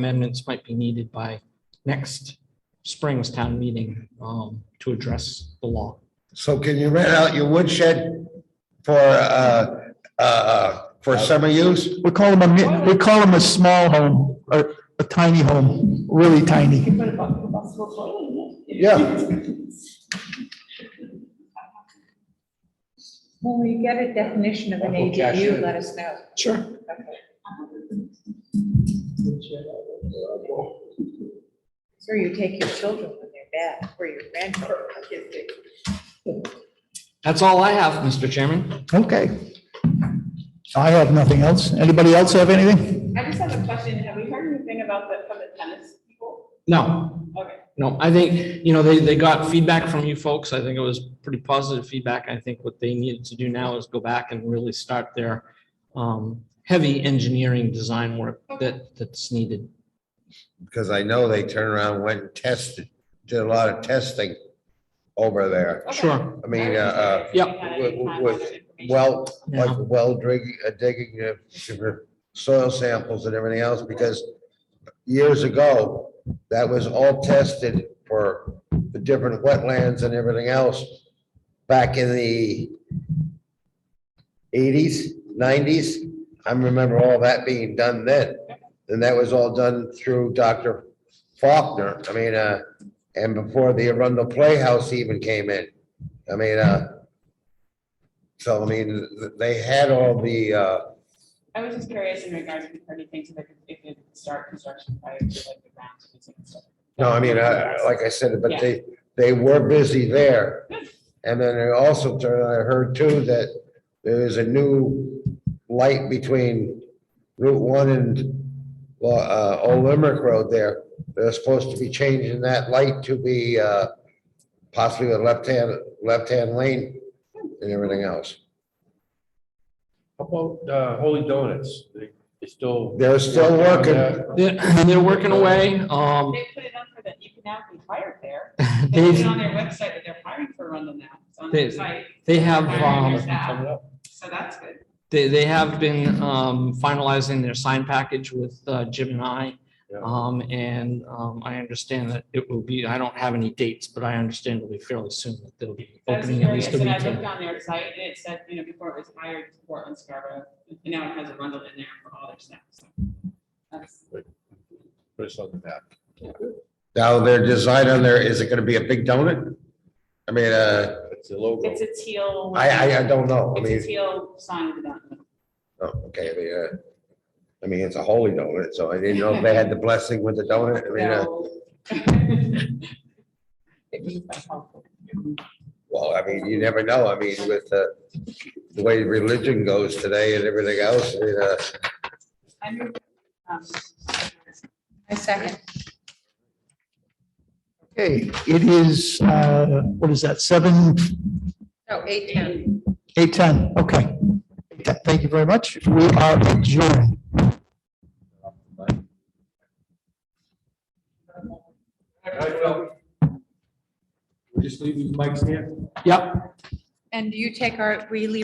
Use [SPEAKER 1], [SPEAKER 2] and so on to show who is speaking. [SPEAKER 1] amendments might be needed by next spring's town meeting um, to address the law.
[SPEAKER 2] So can you rent out your woodshed for, uh, uh, for summer use?
[SPEAKER 3] We call them a, mi- we call them a small home, or a tiny home, really tiny.
[SPEAKER 4] Put a bu- possible toilet in it.
[SPEAKER 2] Yeah,
[SPEAKER 5] When we get a definition of an ADU, let us know.
[SPEAKER 1] Sure.
[SPEAKER 5] Or you take your children when they're bad, or your grandchildren.
[SPEAKER 1] That's all I have, Mr. Chairman.
[SPEAKER 3] Okay. I have nothing else. Anybody else have anything?
[SPEAKER 4] I just have a question. Have we heard anything about the, from the tennis people?
[SPEAKER 1] No,
[SPEAKER 4] Okay.
[SPEAKER 1] no, I think, you know, they, they got feedback from you folks. I think it was pretty positive feedback. I think what they needed to do now is go back and really start their um, heavy engineering design work that, that's needed.
[SPEAKER 2] because I know they turned around, went and tested, did a lot of testing over there.
[SPEAKER 4] Okay.
[SPEAKER 1] Sure.
[SPEAKER 2] I mean, uh, uh,
[SPEAKER 4] I just
[SPEAKER 1] Yep.
[SPEAKER 4] had any
[SPEAKER 2] Wa- wa-
[SPEAKER 4] contact
[SPEAKER 2] wa-
[SPEAKER 4] information.
[SPEAKER 2] well,
[SPEAKER 1] Yeah.
[SPEAKER 2] like well digging, uh, digging uh, sugar, soil samples and everything else, because years ago, that was all tested for the different wetlands and everything else back in the eighties, nineties. I remember all that being done then. And that was all done through Dr. Faulkner. I mean, uh, and before the Arundel Playhouse even came in. I mean, uh, so I mean, th- they had all the, uh,
[SPEAKER 4] I was just curious in regards to anything so that if it start construction prior to like the ground. leasing and stuff.
[SPEAKER 2] no, I mean, I, like I said, but they, they were busy there. And then I also, turned- I heard too that there is a new light between Route One and, well, uh, Old Limerick Road there. They're supposed to be changing that light to be, uh, possibly a left-hand, left-hand lane and everything else.
[SPEAKER 6] How about uh, Holy Donuts? They they still.
[SPEAKER 2] They're still working.
[SPEAKER 6] Yeah.
[SPEAKER 1] They're, they're working away. Um,
[SPEAKER 4] They put it up for the Economic Fire Fair. They put it
[SPEAKER 1] they've,
[SPEAKER 4] on their website that they're hiring for Arundel now. It's on
[SPEAKER 1] They-
[SPEAKER 4] their site.
[SPEAKER 1] they have,
[SPEAKER 4] Hiring
[SPEAKER 1] um,
[SPEAKER 4] their staff,
[SPEAKER 6] Coming up.
[SPEAKER 4] So that's good.
[SPEAKER 1] They, they have been um, finalizing their sign package with uh, Jim and I.
[SPEAKER 6] Yeah.
[SPEAKER 1] Um, And um, I understand that it will be, I don't have any dates, but I understand it'll be fairly soon that they'll be
[SPEAKER 4] I was
[SPEAKER 1] opening at
[SPEAKER 4] curious,
[SPEAKER 1] least a
[SPEAKER 4] and I looked
[SPEAKER 1] retail.
[SPEAKER 4] on their site, and it said, you know, before it was hired, Portland, Scarborough, and now it has Arundel in there for all their staff, so. That's,
[SPEAKER 6] Put us on the map.
[SPEAKER 2] Now their design on there, is it gonna be a big donut? I mean, uh,
[SPEAKER 6] That's the logo.
[SPEAKER 4] it's a teal.
[SPEAKER 2] I, I, I don't know. I
[SPEAKER 4] It's
[SPEAKER 2] mean,
[SPEAKER 4] a teal sign with that.
[SPEAKER 2] oh, okay, I mean, uh, I mean, it's a holy donut, so I didn't know if they had the blessing with the donut. I mean, uh,
[SPEAKER 4] No. It means that's helpful.
[SPEAKER 2] well, I mean, you never know. I mean, with, uh, the way religion goes today and everything else, I mean, uh,
[SPEAKER 4] I mean, um,
[SPEAKER 5] I second.
[SPEAKER 3] Okay, it is, uh, what is that, seven,
[SPEAKER 5] No, eight, ten.
[SPEAKER 3] eight, ten, okay. Thank you very much. We are adjourned.
[SPEAKER 6] We just leave these mics here?
[SPEAKER 1] Yep.
[SPEAKER 5] And you take our, we leave